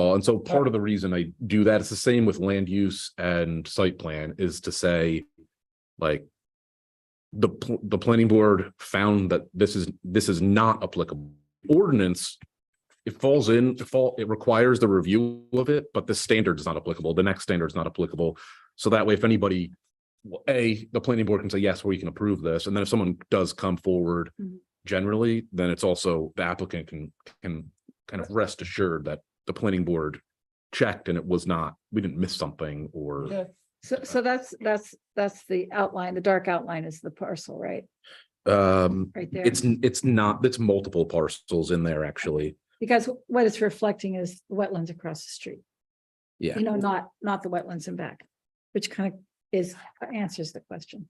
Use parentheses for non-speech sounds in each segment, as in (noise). all. Uh, And so part of the reason I do that, it's the same with land use and site plan is to say, like, the, pl- the planning board found that this is, this is not applicable. Ordinance, it falls in, it fall, it requires the review of it, but the standard is not applicable. The next standard is not applicable. So that way, if anybody, well, A, the planning board can say, yes, we can approve this. And then if someone does come forward Mhm. generally, then it's also the applicant can, can kind of rest assured that the planning board checked and it was not, we didn't miss something or, Yeah. So, so that's, that's, that's the outline, the dark outline is the parcel, right? um, Right there. it's, it's not, it's multiple parcels in there, actually. Because what it's reflecting is the wetlands across the street. Yeah. You know, not, not the wetlands in back, which kind of is, answers the question.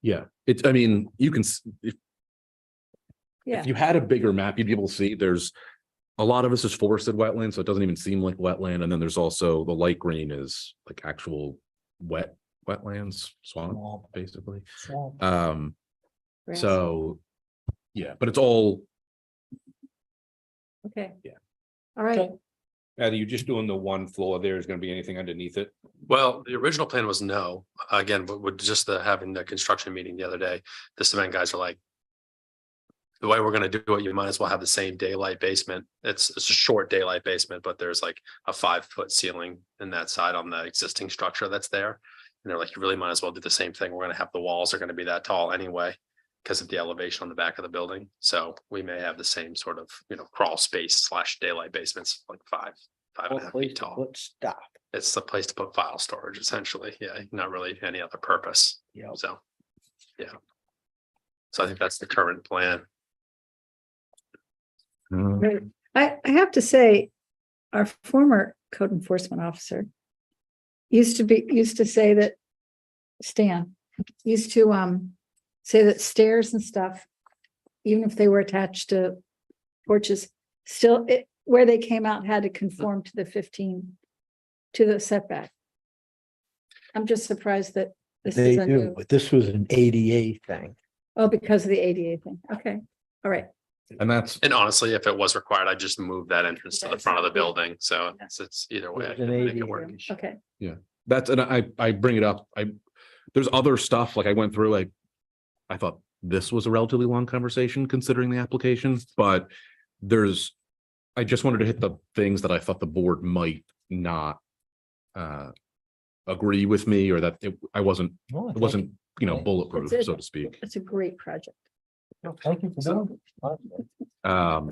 Yeah, it's, I mean, you can, s- if, Yeah. if you had a bigger map, you'd be able to see there's a lot of this is forested wetland, so it doesn't even seem like wetland. And then there's also the light green is like actual wet, wetlands, swamp, basically. Swamp. Um, Grass. so, yeah, but it's all, Okay. Yeah. All right, Okay. Are you just doing the one floor there? Is gonna be anything underneath it? Well, the original plan was no, again, but with just the having the construction meeting the other day, the cement guys are like. The way we're gonna do it, you might as well have the same daylight basement. It's it's a short daylight basement, but there's like a five foot ceiling in that side on the existing structure that's there. And they're like, you really might as well do the same thing. We're gonna have the walls are gonna be that tall anyway. Because of the elevation on the back of the building, so we may have the same sort of, you know, crawl space slash daylight basements, like five, five and a half feet tall Let's stop. it's the place to put file storage essentially, yeah, not really any other purpose, Yeah. so, yeah. So I think that's the current plan. uh, Right. I, I have to say, our former code enforcement officer used to be, used to say that, Stan, used to, um, say that stairs and stuff, even if they were attached to porches, still, it, where they came out had to conform to the fifteen, to the setback. I'm just surprised that this They is a do, new, but this was an ADA thing. oh, because of the ADA thing, okay, all right. and that's, And honestly, if it was required, I'd just move that entrance to the front of the building, so it's, it's either way. I It was can an make ADA it work. issue. Okay, that's, and I, I bring it up, I, there's other stuff, like I went through, like, I thought this was a relatively long conversation considering the application, but there's, I just wanted to hit the things that I thought the board might not uh, agree with me or that it, I wasn't, it wasn't, you know, bulletproof, That's it. so to speak. it's a great project. Thank you for doing it. Honestly, Um,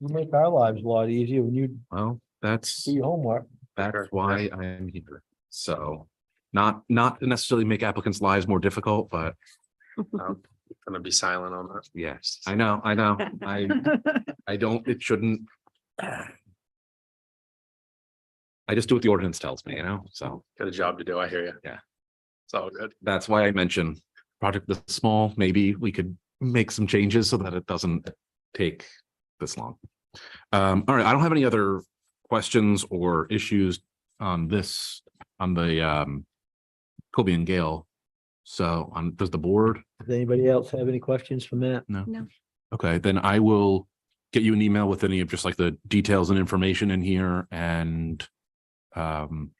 You make our lives a lot easier when you well, that's. do your homework. Sure. That's why I am here. So not, not to necessarily make applicants' lives more difficult, but Um, I'm gonna be silent on that. yes, I know, I know. (laughs) I, I don't, it shouldn't. I just do what the ordinance tells me, you know, so Got a job to do, I hear you. Yeah. It's all good. that's why I mention project this small, maybe we could make some changes so that it doesn't take this long. Um, all right, I don't have any other questions or issues on this, on the um Kobe and Gale. So on, does the board? Does anybody else have any questions for Matt? No. No. Okay, then I will get you an email with any of just like the details and information in here and um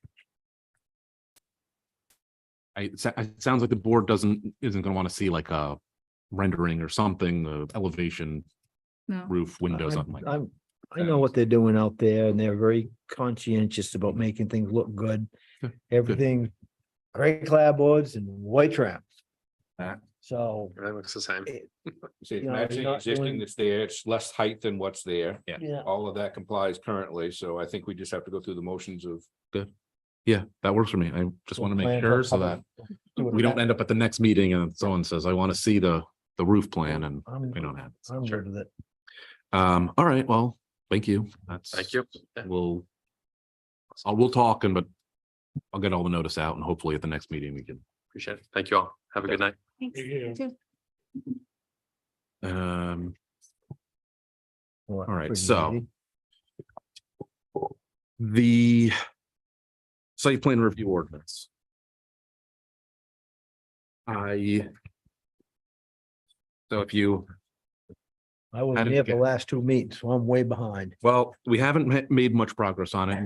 I, it sa- it sounds like the board doesn't, isn't gonna wanna see like a rendering or something, the elevation, No. roof, windows, I- something like. that. I'm, I know what they're doing out there and they're very conscientious about making things look good. Good, Everything, gray clapboards and white traps. That- So, Everything looks the same. So it's You know, you're matching not existing doing- that's there, it's less height than what's there. Yeah. yeah, All of that complies currently, so I think we just have to go through the motions of. Yeah, that works for me. I just wanna make plan for sure so that public- do it we don't that- end up at the next meeting and someone says, I wanna see the, the roof plan and I'm, we don't have. it. I'm good with it. Um, all right, well, thank you. That's. Thank you. Yeah. We'll. I'll, we'll talk and but I'll get all the notice out and hopefully at the next meeting we can, Appreciate it. Thank you all. Have a good night. (laughs) Thanks. um, All right, so- the. Site plan review ordinance. I. So if you. I was How did near it the get- last two meetings, so I'm way behind. Well, we haven't ma- made much progress on it.